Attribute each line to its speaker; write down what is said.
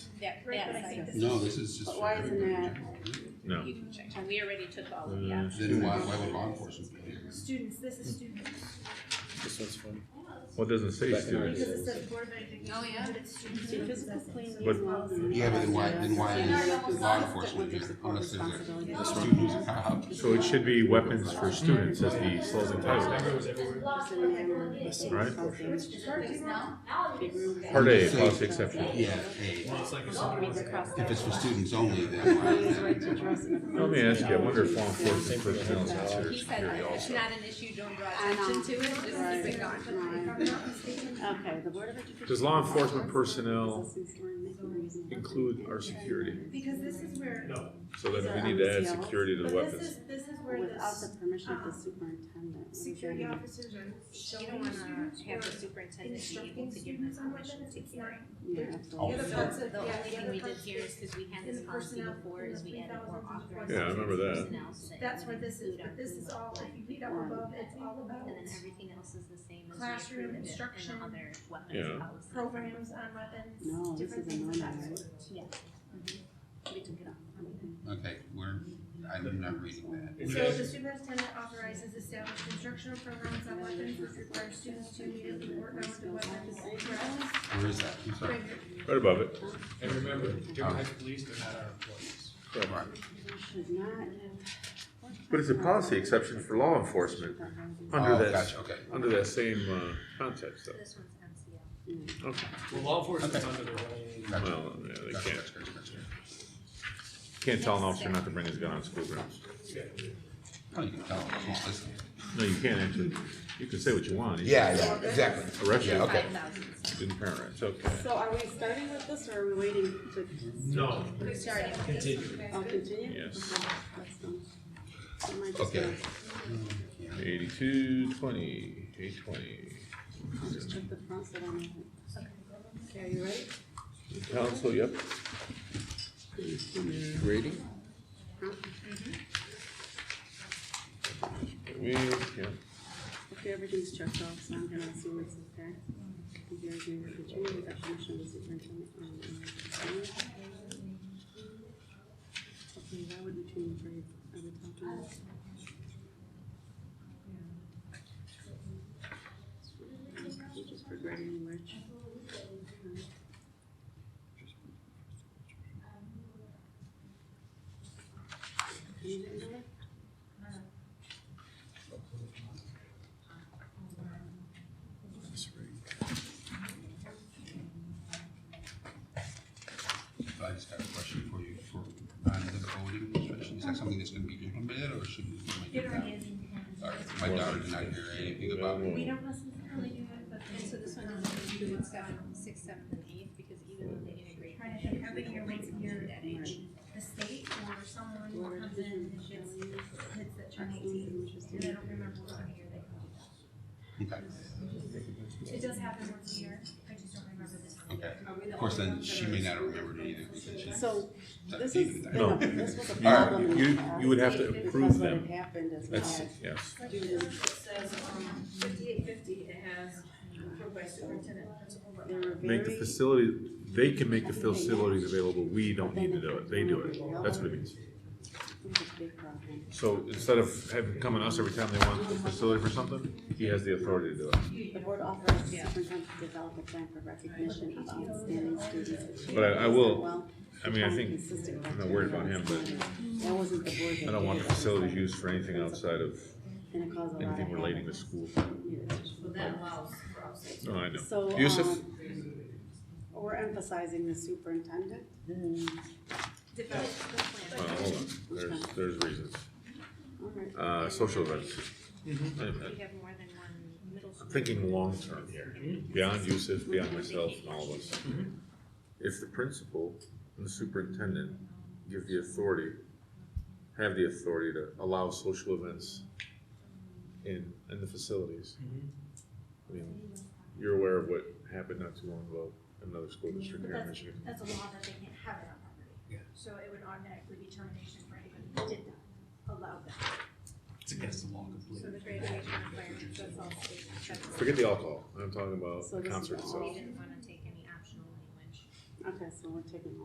Speaker 1: that,
Speaker 2: Right, but I think
Speaker 1: that
Speaker 2: this
Speaker 1: side.
Speaker 3: No, this is just
Speaker 4: But
Speaker 3: for
Speaker 4: why isn't
Speaker 3: everybody in
Speaker 4: that-
Speaker 3: general, right?
Speaker 5: No.
Speaker 1: You can check, we already took all of
Speaker 5: Uh,
Speaker 1: that.
Speaker 3: Then why, why would law enforcement be here?
Speaker 2: Students, this is students.
Speaker 3: Hmm.
Speaker 6: This one's fun.
Speaker 5: Well, it doesn't
Speaker 6: Back
Speaker 5: say
Speaker 6: in our
Speaker 5: students.
Speaker 2: Because it
Speaker 6: days.
Speaker 2: says board of education,
Speaker 1: Oh, yeah.
Speaker 2: but it's students.
Speaker 4: See,
Speaker 2: who
Speaker 4: physical
Speaker 2: possess it.
Speaker 4: cleaning
Speaker 5: But-
Speaker 4: is well done.
Speaker 3: Yeah, but then why, then why
Speaker 4: And I
Speaker 3: is
Speaker 4: almost
Speaker 3: law
Speaker 4: lost it with your
Speaker 3: enforcement here unless there's
Speaker 4: responsibility.
Speaker 3: a student who's a cop?
Speaker 5: So it should be weapons for students as the closing title. Right?
Speaker 4: Big room.
Speaker 5: Part A,
Speaker 3: Say-
Speaker 5: policy exception.
Speaker 3: Yeah, hey,
Speaker 4: Across
Speaker 3: if
Speaker 4: the-
Speaker 3: it's for students only, then why is
Speaker 4: Right
Speaker 3: that?
Speaker 4: to dress in a-
Speaker 5: Let me ask you, I wonder if law enforcement
Speaker 6: Same thing.
Speaker 5: personnel is considered
Speaker 1: He said,
Speaker 5: security
Speaker 1: it's
Speaker 5: also.
Speaker 1: not an issue, don't draw
Speaker 4: I know.
Speaker 1: attention to it, just
Speaker 4: Right.
Speaker 1: keep it gone.
Speaker 4: Right. Okay, the Board of Education.
Speaker 5: Does law enforcement personnel Include our security.
Speaker 2: Because this is where,
Speaker 5: So then we need to add security to
Speaker 2: but
Speaker 5: the
Speaker 2: this
Speaker 5: weapons.
Speaker 2: is, this is where
Speaker 4: Without
Speaker 2: the
Speaker 4: the permission of the superintendent.
Speaker 2: security officers are
Speaker 1: You don't
Speaker 2: showing
Speaker 1: wanna
Speaker 2: students
Speaker 1: have the
Speaker 2: or
Speaker 1: superintendent be able
Speaker 2: instructing
Speaker 1: to give them
Speaker 2: students on
Speaker 1: permission
Speaker 2: weapons,
Speaker 1: to
Speaker 2: it's
Speaker 1: carry.
Speaker 2: not.
Speaker 4: Yeah,
Speaker 3: Oh.
Speaker 2: The other
Speaker 4: absolutely.
Speaker 2: parts of,
Speaker 1: The
Speaker 2: yeah,
Speaker 1: only
Speaker 2: the
Speaker 1: thing
Speaker 2: other
Speaker 1: we did
Speaker 2: parts
Speaker 1: here is,
Speaker 2: is,
Speaker 1: cause we had
Speaker 2: is
Speaker 1: this
Speaker 2: the
Speaker 1: policy
Speaker 2: personnel
Speaker 1: before,
Speaker 2: and
Speaker 1: is
Speaker 2: the
Speaker 1: we added more
Speaker 2: 3,000
Speaker 1: authorized.
Speaker 2: Yeah, I
Speaker 5: remember that.
Speaker 1: personnel, so that
Speaker 2: that's
Speaker 1: we
Speaker 2: where this is,
Speaker 1: include our
Speaker 2: but this is
Speaker 1: blue
Speaker 2: all,
Speaker 1: line.
Speaker 2: if you read all above, it's all about
Speaker 1: And then everything else is the same as we
Speaker 2: Classroom
Speaker 1: approved it in
Speaker 2: instruction.
Speaker 1: the other
Speaker 5: Yeah.
Speaker 1: weapons policy.
Speaker 2: programs on weapons,
Speaker 4: No, this
Speaker 2: different
Speaker 4: is a
Speaker 2: things like
Speaker 4: no-no,
Speaker 2: that.
Speaker 4: right?
Speaker 1: Yeah. Mhm. We took it off.
Speaker 3: Okay, we're, I'm not reading that.
Speaker 2: So the superintendent authorizes established instructional programs on weapons which require students to immediately work on the weapons. whereas-
Speaker 3: Where is that? I'm sorry.
Speaker 5: Right above it.
Speaker 7: And remember,
Speaker 5: Oh.
Speaker 7: Dearborn Police, they're not our employees.
Speaker 3: Right.
Speaker 4: Should not.
Speaker 5: But it's a policy exception for law enforcement under
Speaker 3: Oh,
Speaker 5: that,
Speaker 3: gotcha, okay.
Speaker 5: under that same, uh, concept stuff.
Speaker 1: This one's MCL.
Speaker 5: Okay.
Speaker 7: Well, law enforcement's under their own.
Speaker 3: Gotcha.
Speaker 5: Well, yeah, they
Speaker 3: Gotcha,
Speaker 5: can't,
Speaker 3: gotcha, gotcha, gotcha.
Speaker 5: can't tell an officer not to bring his gun on school grounds.
Speaker 3: Oh, you can tell. It's not listening.
Speaker 5: No, you can't actually. You can say what you want. You
Speaker 4: yeah.
Speaker 3: exactly.
Speaker 5: Arrest
Speaker 3: Yeah,
Speaker 5: you.
Speaker 3: okay.
Speaker 1: Five thousand.
Speaker 5: Didn't parent, it's okay.
Speaker 4: So are we starting with this or are we waiting to?
Speaker 7: No,
Speaker 1: We're starting with this.
Speaker 7: continue.
Speaker 4: Oh, continue?
Speaker 5: Yes.
Speaker 4: Okay, that's done. I might just
Speaker 3: Okay.
Speaker 4: go-
Speaker 5: Eighty-two, twenty, eight twenty.
Speaker 4: I'll just check the front so I don't have it. Okay, are you ready?
Speaker 5: Council, yep.
Speaker 6: Rating?
Speaker 4: Huh?
Speaker 5: We, yeah.
Speaker 4: Okay, everything's checked off, so I'm gonna assume it's okay. If you guys need to change the definition of the superintendent. um, Okay, that would be changed right at the top of this. We're Just regretting which. Okay. Anything there?
Speaker 3: So I just got a question for you for, on the voting restriction. Is that something that's gonna be implemented or should we? make it now? Sorry, my daughter did not hear anything about it.
Speaker 2: We don't necessarily do it, but.
Speaker 1: And so this one doesn't include seven, six, seven, and eight, because even though they integrate.
Speaker 2: Trying to think, every year, once a year,
Speaker 1: That age.
Speaker 2: the state or someone
Speaker 4: Where
Speaker 2: comes in and hits, hits that turn eighteen, and I don't remember what kind of year they
Speaker 3: Okay,
Speaker 2: come. It does happen once a year, I just don't remember this one.
Speaker 3: okay. Of course, then she may not have remembered it either because she's
Speaker 4: So, this is,
Speaker 3: seventeen.
Speaker 5: Uh, No.
Speaker 4: this was a
Speaker 5: You-
Speaker 4: problem. in the
Speaker 5: You,
Speaker 4: past
Speaker 5: you would have to
Speaker 4: Because
Speaker 5: approve
Speaker 4: what had
Speaker 5: them.
Speaker 4: happened is
Speaker 5: That's,
Speaker 4: well,
Speaker 5: yes.
Speaker 4: students,
Speaker 8: says, um, fifty-eight fifty, it has approved by superintendent, principal, but
Speaker 4: they were very.
Speaker 5: Make the facility, they can make the facilities available. We don't need to do it. They do it. That's what it means.
Speaker 4: It was a big problem.
Speaker 5: So instead of having, coming to us every time they want the facility for something, he has the authority to do it.
Speaker 4: The board authorized the superintendent to develop a plan for recognition of outstanding students.
Speaker 5: But I- I will-
Speaker 4: Well,
Speaker 5: I mean, I
Speaker 4: on
Speaker 5: think,
Speaker 4: consistent
Speaker 5: I'm not worried about him, but
Speaker 4: criteria. That wasn't the board. that
Speaker 5: I don't want
Speaker 4: did
Speaker 5: the
Speaker 4: it.
Speaker 5: facilities used for anything outside of
Speaker 4: And it caused a lot of
Speaker 5: anything relating to
Speaker 4: havoc.
Speaker 5: school.
Speaker 4: Yeah.
Speaker 8: but that allows for us.
Speaker 5: No, I know.
Speaker 4: So,
Speaker 5: Yusuf?
Speaker 4: um, we're emphasizing the superintendent.
Speaker 1: Develop the plan.
Speaker 5: Well, hold on. There's, there's reasons.
Speaker 4: All right.
Speaker 5: Uh, social events. Wait a minute.
Speaker 1: We have more than one middle school.
Speaker 5: I'm thinking long term here, beyond Yusuf, beyond myself and all of us.
Speaker 4: Mm-hmm.
Speaker 5: If the principal and the superintendent give the authority, have the authority to allow social events in, in the facilities.
Speaker 4: Mm-hmm.
Speaker 5: I mean, you're aware of what happened not too long ago in another school district here in Michigan.
Speaker 2: That's a law that they can't have it on property.
Speaker 7: Yeah.
Speaker 2: So it would automatically be termination for anybody who did not allow that.
Speaker 7: It's against the law
Speaker 1: So
Speaker 7: completely.
Speaker 1: the graduation requirements, that's all state. That's-
Speaker 5: Forget the alcohol, I'm talking about
Speaker 4: So
Speaker 5: the
Speaker 4: this is
Speaker 5: concert
Speaker 4: all-
Speaker 5: itself.
Speaker 1: We didn't wanna take any optional language.
Speaker 4: Okay, so we're taking